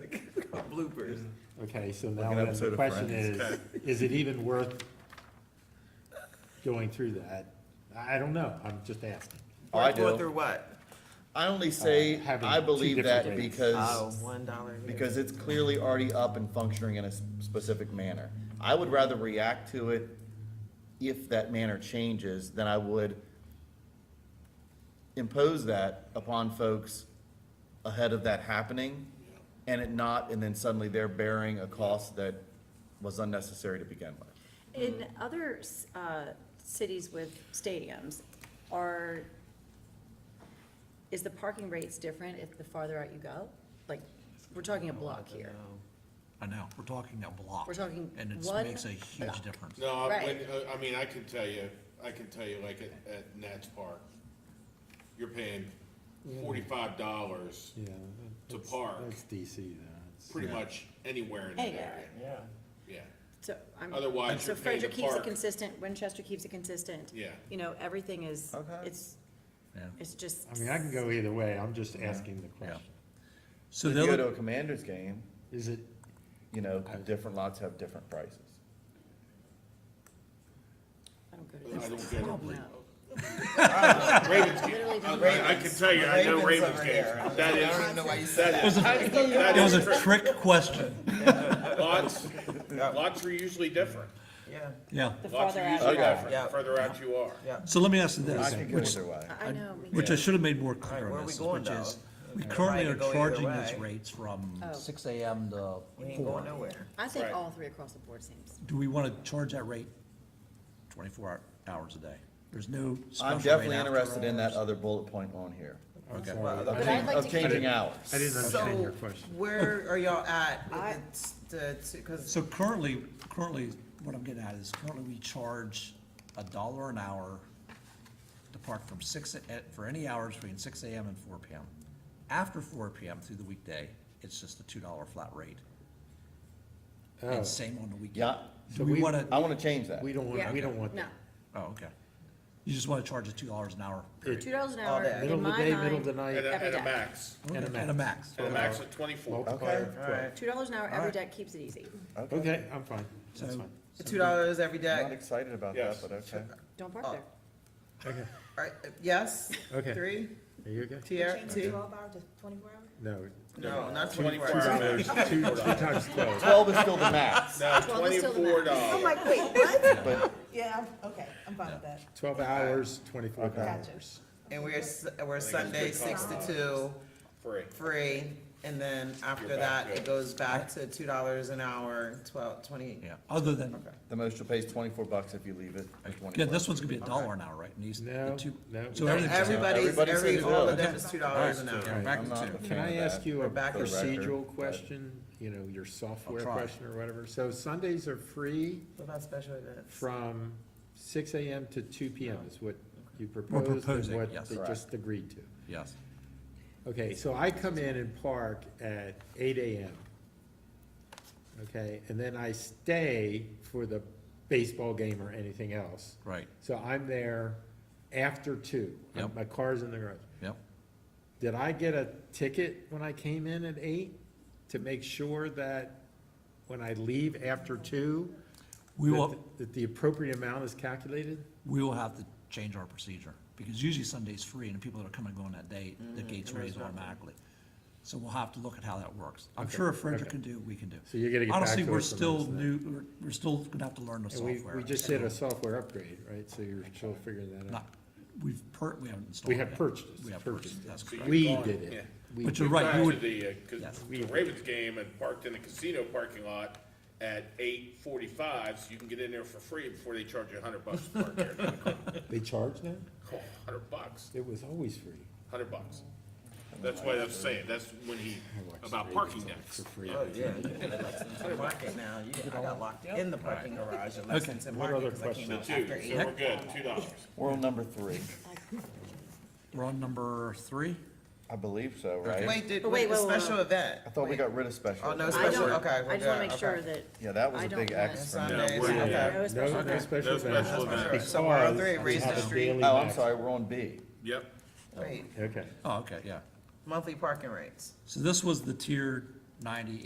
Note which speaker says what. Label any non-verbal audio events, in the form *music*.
Speaker 1: *laughs*
Speaker 2: bloopers.
Speaker 3: Okay, so
Speaker 4: Like
Speaker 3: now
Speaker 4: an
Speaker 3: then
Speaker 4: episode
Speaker 3: the
Speaker 4: of
Speaker 3: question
Speaker 4: Friends.
Speaker 3: is, is it even worth going through that? I I don't know, I'm just asking.
Speaker 4: Oh, I
Speaker 2: Worth what
Speaker 4: do.
Speaker 2: or what?
Speaker 4: I only say,
Speaker 3: Uh, having
Speaker 4: I
Speaker 3: two
Speaker 4: believe
Speaker 3: different
Speaker 4: that
Speaker 3: rates.
Speaker 2: Oh,
Speaker 1: Uh,
Speaker 4: because,
Speaker 2: one dollar. here.
Speaker 1: *laughs*
Speaker 4: because it's clearly already up and functioning in a s- specific manner. I would rather react to it if that manner changes than I would impose that upon folks ahead of that happening and it not, and then suddenly they're bearing a cost that was unnecessary to begin with.
Speaker 5: In
Speaker 6: Mm-hmm.
Speaker 5: other s- uh, cities with stadiums, are, is the parking rates different if the farther out you go? Like, we're talking a block here.
Speaker 6: I Oh, know, we're talking a block.
Speaker 5: We're talking
Speaker 6: And
Speaker 5: one
Speaker 6: it makes a huge
Speaker 5: block.
Speaker 6: difference.
Speaker 7: No, I-
Speaker 5: Right.
Speaker 7: when, uh, I mean, I can tell you, I can tell you, like, at, at Nats Park, you're paying forty-five dollars,
Speaker 3: Yeah.
Speaker 7: To
Speaker 3: that's-
Speaker 7: park.
Speaker 3: That's DC though.
Speaker 7: pretty much anywhere in the
Speaker 5: Anywhere.
Speaker 7: area.
Speaker 1: Yeah.
Speaker 7: Yeah,
Speaker 5: So I'm.
Speaker 7: Otherwise,
Speaker 5: So
Speaker 7: you're paying
Speaker 5: Frederick
Speaker 7: to
Speaker 5: keeps it
Speaker 7: park.
Speaker 5: consistent, Winchester keeps it consistent.
Speaker 7: Yeah.
Speaker 5: You know, everything is,
Speaker 4: Okay.
Speaker 5: it's,
Speaker 6: Yeah.
Speaker 5: it's just.
Speaker 3: I mean, I can go either way, I'm just asking the
Speaker 6: Yeah.
Speaker 3: question.
Speaker 6: So
Speaker 4: If
Speaker 6: the
Speaker 4: you go to
Speaker 6: other,
Speaker 4: a Commanders game,
Speaker 3: Is it,
Speaker 4: you know, different lots have different prices.
Speaker 5: I don't go to
Speaker 7: I
Speaker 5: those.
Speaker 7: don't get it.
Speaker 5: No.
Speaker 7: Ravens
Speaker 5: Literally
Speaker 7: game,
Speaker 5: don't
Speaker 7: I I can tell you, I know
Speaker 4: Ravens
Speaker 7: Ravens
Speaker 4: over
Speaker 7: games,
Speaker 4: there.
Speaker 7: that
Speaker 4: I don't even
Speaker 7: is,
Speaker 4: know why
Speaker 5: *laughs*
Speaker 4: you said
Speaker 7: that is, that
Speaker 6: it was a
Speaker 7: is,
Speaker 6: trick question.
Speaker 7: lots, lots are usually different.
Speaker 1: Yeah,
Speaker 6: Yeah.
Speaker 5: The
Speaker 7: Lots
Speaker 5: farther
Speaker 7: are
Speaker 5: out
Speaker 7: usually
Speaker 5: you go.
Speaker 7: different,
Speaker 1: Yeah.
Speaker 7: the further out you are.
Speaker 1: yeah.
Speaker 6: So let me ask you
Speaker 4: I
Speaker 6: this,
Speaker 4: could go
Speaker 6: which,
Speaker 4: either way.
Speaker 5: I know, me
Speaker 6: which
Speaker 5: too.
Speaker 6: I should have made more
Speaker 1: All
Speaker 6: clear
Speaker 1: right, where
Speaker 6: on
Speaker 1: are we
Speaker 6: this,
Speaker 1: going,
Speaker 6: which is,
Speaker 1: though?
Speaker 6: we
Speaker 1: If
Speaker 6: currently
Speaker 1: I
Speaker 6: are
Speaker 1: could go either
Speaker 6: charging these
Speaker 1: way,
Speaker 6: rates from
Speaker 5: Oh.
Speaker 6: six AM to
Speaker 1: We ain't going
Speaker 6: four.
Speaker 1: nowhere.
Speaker 5: I think
Speaker 7: Right.
Speaker 5: all three across the board seems.
Speaker 6: Do we wanna charge that rate twenty-four hour- hours a day? There's no special rate
Speaker 4: I'm definitely
Speaker 6: after
Speaker 4: interested in that
Speaker 6: hours.
Speaker 4: other bullet point on here,
Speaker 3: I'm
Speaker 6: Okay.
Speaker 3: sorry,
Speaker 4: of
Speaker 5: But I'd
Speaker 4: chang-
Speaker 5: like
Speaker 4: of
Speaker 5: to-
Speaker 4: changing
Speaker 3: I
Speaker 4: hours.
Speaker 3: didn't understand your
Speaker 1: So,
Speaker 3: question.
Speaker 1: where are y'all at
Speaker 5: I-
Speaker 1: with the, t- t- cause,
Speaker 6: So currently, currently, what I'm getting at is currently we charge a dollar an hour to park from six, a- for any hours between six AM and four PM. After four PM through the weekday, it's just a two dollar flat rate,
Speaker 3: Oh,
Speaker 6: and same on the weekend.
Speaker 4: Yeah,
Speaker 6: Do
Speaker 3: So
Speaker 6: we
Speaker 3: we-
Speaker 6: wanna,
Speaker 4: I wanna change that.
Speaker 3: we don't
Speaker 5: Yeah.
Speaker 3: want, we don't want
Speaker 5: No,
Speaker 3: that.
Speaker 6: oh, okay. You just wanna charge it two dollars an hour, period,
Speaker 5: two dollars an
Speaker 1: All
Speaker 5: hour,
Speaker 1: day.
Speaker 3: Middle
Speaker 5: in
Speaker 3: of the
Speaker 5: my
Speaker 3: day, middle of the
Speaker 5: mind,
Speaker 7: At
Speaker 3: night,
Speaker 7: a, at
Speaker 5: Every
Speaker 7: a
Speaker 5: day.
Speaker 7: max,
Speaker 6: and a, and a max.
Speaker 7: at a max of twenty-four.
Speaker 3: multiplier
Speaker 4: Okay.
Speaker 3: of twelve.
Speaker 1: alright,
Speaker 5: two dollars an hour every
Speaker 6: Alright.
Speaker 5: day keeps it easy.
Speaker 3: Okay, I'm fine, that's
Speaker 6: So-
Speaker 3: fine.
Speaker 1: two dollars every
Speaker 4: I'm not
Speaker 1: day,
Speaker 4: excited about that,
Speaker 7: Yes.
Speaker 4: but okay.
Speaker 5: Don't
Speaker 1: Oh.
Speaker 5: park there.
Speaker 3: Okay,
Speaker 1: alright, yes?
Speaker 3: Okay.
Speaker 1: Three,
Speaker 3: are you okay?
Speaker 1: tier, two,
Speaker 3: No,
Speaker 1: no, not twenty-four
Speaker 7: Twenty-four
Speaker 1: hours.
Speaker 7: hours.
Speaker 3: two, two times twelve.
Speaker 4: *laughs* Twelve is still the max,
Speaker 7: No,
Speaker 5: Well, that's still the Oh
Speaker 7: twenty-four
Speaker 8: I'm
Speaker 7: dollars.
Speaker 8: like, wait, what?
Speaker 4: but
Speaker 8: Yeah, I'm- okay, I'm fine with that.
Speaker 3: 12 hours, 24
Speaker 4: Okay.
Speaker 3: dollars.
Speaker 1: And we're, s- we're
Speaker 7: it's
Speaker 1: Sunday,
Speaker 7: good
Speaker 1: six to
Speaker 7: compromise.
Speaker 1: two,
Speaker 7: Free.
Speaker 1: free, and then after
Speaker 7: You're
Speaker 1: that,
Speaker 7: back
Speaker 1: it
Speaker 7: to-
Speaker 1: goes back to two dollars an hour, twelve, twenty.
Speaker 6: Yeah, other than,
Speaker 4: the most you'll pay is twenty-four bucks if you leave it at
Speaker 6: yeah,
Speaker 4: twenty-four.
Speaker 6: this one's gonna be a dollar an hour, right? And these, the
Speaker 3: No,
Speaker 6: two,
Speaker 3: no.
Speaker 6: so
Speaker 3: No,
Speaker 6: everything's.
Speaker 1: Everybody's,
Speaker 4: Everybody said
Speaker 1: every,
Speaker 4: it
Speaker 1: all
Speaker 4: was.
Speaker 1: of them is two dollars an
Speaker 6: Yeah,
Speaker 1: hour.
Speaker 6: back
Speaker 4: I'm
Speaker 6: to
Speaker 4: not
Speaker 6: two.
Speaker 4: a
Speaker 3: Can
Speaker 4: fan
Speaker 3: I
Speaker 4: of
Speaker 3: ask
Speaker 4: that,
Speaker 3: you a
Speaker 4: for the record,
Speaker 3: procedural
Speaker 4: but-
Speaker 3: question? You know, your software
Speaker 6: try.
Speaker 3: question or whatever. So Sundays are free
Speaker 1: What about special events?
Speaker 3: from 6 AM to 2 PM is what you proposed?
Speaker 6: proposing,
Speaker 3: And
Speaker 6: yes.
Speaker 3: what they
Speaker 4: Correct.
Speaker 3: just agreed to.
Speaker 6: Yes,
Speaker 3: Okay, so I come in and park at eight AM. Okay, and then I stay for the baseball game or anything else.
Speaker 6: right,
Speaker 3: So I'm there after two.
Speaker 6: Yep.
Speaker 3: My car's in the garage.
Speaker 6: yep.
Speaker 3: Did I get a ticket when I came in at eight to make sure that when I leave after two?
Speaker 6: We
Speaker 3: that
Speaker 6: will,
Speaker 3: th- That the appropriate amount is calculated?
Speaker 6: we will have to change our procedure, because usually Sunday's free, and the people that are coming and going that day,
Speaker 3: Mm-hmm.
Speaker 6: the gate's raised automatically. So we'll have to look at how that works. I'm sure if Frederick can do, we can do.
Speaker 3: So you're gonna get back
Speaker 6: Honestly,
Speaker 3: to
Speaker 6: we're
Speaker 3: us on
Speaker 6: still
Speaker 3: this then.
Speaker 6: new, we're, we're still gonna have to learn the
Speaker 3: And we,
Speaker 6: software.
Speaker 3: we just
Speaker 6: so
Speaker 3: did a software upgrade, right? So you're still figuring that out.
Speaker 6: Not, we've per, we haven't installed
Speaker 3: We
Speaker 6: it
Speaker 3: have
Speaker 6: yet.
Speaker 3: purchased it.
Speaker 6: We have
Speaker 3: purchased
Speaker 6: purchased,
Speaker 3: it.
Speaker 6: that's
Speaker 7: So you
Speaker 6: correct.
Speaker 3: We
Speaker 7: gone,
Speaker 3: did it.
Speaker 7: yeah.
Speaker 3: We
Speaker 6: But
Speaker 3: did
Speaker 6: you're
Speaker 3: it.
Speaker 6: right, you
Speaker 7: Back to
Speaker 6: would,
Speaker 7: the, uh, 'cause
Speaker 6: Yes.
Speaker 7: the Ravens game and parked in the casino parking lot at eight forty-five, so you can get in there for free before they charge you a hundred bucks to
Speaker 6: *laughs*
Speaker 7: park there.
Speaker 3: They charge now?
Speaker 7: Oh, Hundred bucks,
Speaker 3: It was always free.
Speaker 7: hundred bucks. That's why I'm saying, that's when he, about parking decks.
Speaker 1: Oh, yeah, you can get Lexington to market now, you, I got locked in the parking garage at Lexington
Speaker 3: What other
Speaker 1: Market, cause I came out
Speaker 3: questions?
Speaker 7: Two,
Speaker 1: after
Speaker 7: so
Speaker 1: eight.
Speaker 7: we're good, two dollars.
Speaker 4: We're on number three,
Speaker 6: we're on number three?
Speaker 4: I believe so, right?
Speaker 1: Wait, did,
Speaker 5: Oh, wait,
Speaker 1: wait, a
Speaker 5: wait, wait,
Speaker 1: special
Speaker 5: wait.
Speaker 1: event?
Speaker 4: I thought we got rid of special.
Speaker 1: Oh, no
Speaker 4: events.
Speaker 5: I
Speaker 1: Special-
Speaker 5: don't,
Speaker 1: okay, we're
Speaker 5: I just wanna
Speaker 1: good,
Speaker 5: make sure
Speaker 1: okay.
Speaker 5: that.
Speaker 4: Yeah, that was
Speaker 5: I
Speaker 4: a
Speaker 5: don't
Speaker 4: big
Speaker 5: want-
Speaker 4: X for me.
Speaker 1: Sundays,
Speaker 7: we're-
Speaker 1: okay.
Speaker 7: yeah.
Speaker 5: No
Speaker 3: No,
Speaker 5: special
Speaker 3: no
Speaker 5: events.
Speaker 3: special
Speaker 7: No special
Speaker 3: events.
Speaker 7: events.
Speaker 1: So we're on
Speaker 3: because
Speaker 1: three,
Speaker 3: we
Speaker 1: raise the
Speaker 3: have a
Speaker 1: street.
Speaker 3: daily
Speaker 4: Oh, I'm
Speaker 3: max.
Speaker 4: sorry, we're on B.
Speaker 7: Yep,
Speaker 1: Wait,
Speaker 3: Okay.
Speaker 6: Oh, okay, yeah.
Speaker 1: monthly parking rates.
Speaker 6: So this was the tier ninety